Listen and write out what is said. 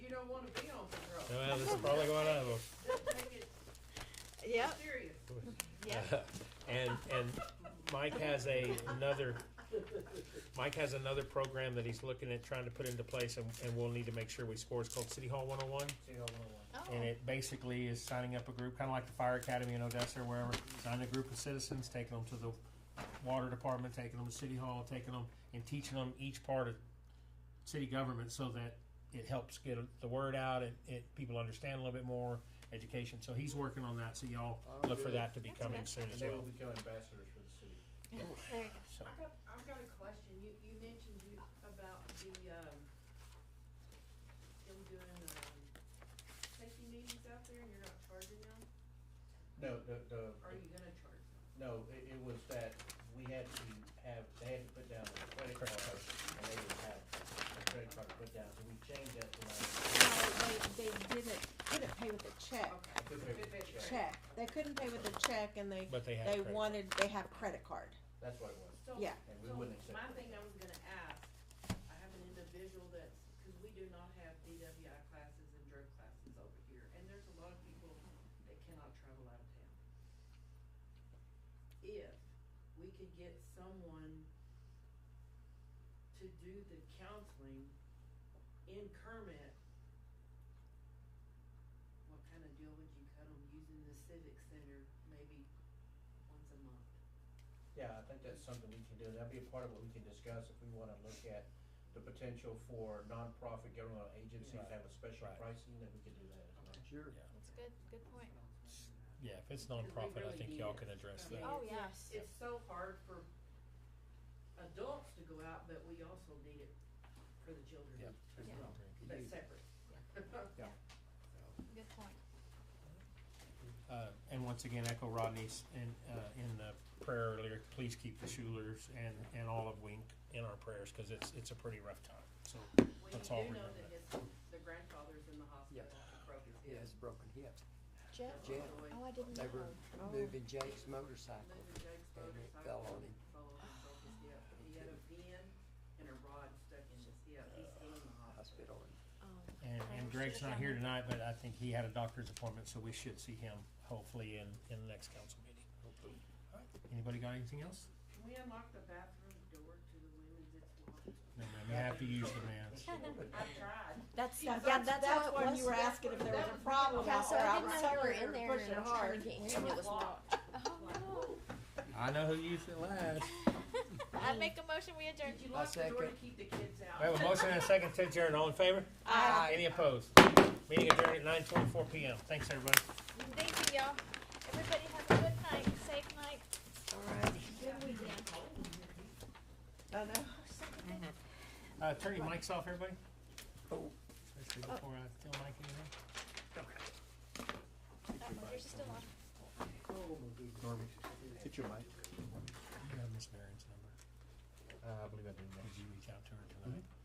don't wanna be on the road. Well, this is probably going on. Just take it Yep, serious. yep. And, and Mike has a, another, Mike has another program that he's looking at trying to put into place and, and we'll need to make sure we score. It's called City Hall one oh one. Oh, And it basically is signing up a group, kinda like the fire academy in Odessa or wherever, signing a group of citizens, taking them to the water department, taking them to City Hall, taking them and teaching them each part of city government so that it helps get the word out and it, people understand a little bit more education. So he's working on that, so y'all look for that to be coming soon And as they will well. become ambassadors for the city. There you go. So, I've got, I've got a question. You, you mentioned you, about the, um, them doing, um, safety meetings out there and you're not charging them? No, the, the, Mm-hmm. Are you gonna charge them? no, it, it was that we had to have, they had to put down a credit card, and they didn't have a credit card to put down, so we changed that to like, they, they didn't, couldn't pay with a check, Okay. I could pay with a check. check. They couldn't pay with a check and they, But they have. they credit. wanted, they have credit card. that's what it was. So- Yeah. And we So, wouldn't accept my it. thing I was gonna ask, I have an individual that's, cause we do not have DWI classes and drug classes over here, and there's a lot of people that cannot travel out of town. If we could get someone to do the counseling in Kermit, what kind of deal would you cut them using the civic center maybe once a month? Yeah, I think that's something we can do, that'd be a part of what we can discuss if we wanna look at the potential for nonprofit governmental agencies to have a special Right. pricing, then we could do that as well. Sure. That's a good, good point. Yeah, if it's nonprofit, I really think need y'all it. can address Yeah. that. Oh, yes. It's so hard for adults to go out, but we also need it for the children as Yeah. well, but separate. Good point. Uh, and once again, echo Rodney's in, uh, in the prayer earlier, please keep the Schulers and, and all of Wink in our prayers, cause it's, it's a pretty rough time, so. Well, Let's all you do know remember that his, their grandfather's in the hospital, he broke his He hip. has a broken hip. Jeff, Jeff, oh, I didn't know. they were moving Jake's motorcycle. Moving Jake's and it motorcycle fell on him. fell on him, broke his hip. He had a pin and a rod stuck in his hip, he's still in the hospital. Hospital. Oh. And, Okay, and we Greg's should've not done here that. tonight, but I think he had a doctor's appointment, so we should see him hopefully in, in the next council meeting. Alright, Anybody got anything else? Can we unlock the bathroom door to the women's, it's locked? No, ma'am, you have to use the man's. I've tried. That's, Yeah, yeah, that's- that's that's how it when was. you were asking if there was a problem Yeah, out so there. I I didn't was know you were sitting in there there and pushing I was trying hard. to get It in and it was was locked. locked. Oh, no. I know who used it last. I make a motion, we adjourn. Did you lock the door to second. keep the kids out? We have a motion and a second to adjourn, all in favor? Aye. Any opposed? Meeting adjourned at nine twenty-four PM, thanks, everybody. Thank you, y'all. Everybody have a good night, safe night. Alright. I know. Uh, turn your mics off, everybody. Oh. Actually, Before I tell Mike anything. Oh, yours is still on. Norman, hit your mic. You have Miss Barron's number. Uh, I believe I do, Did you reach out to her tonight?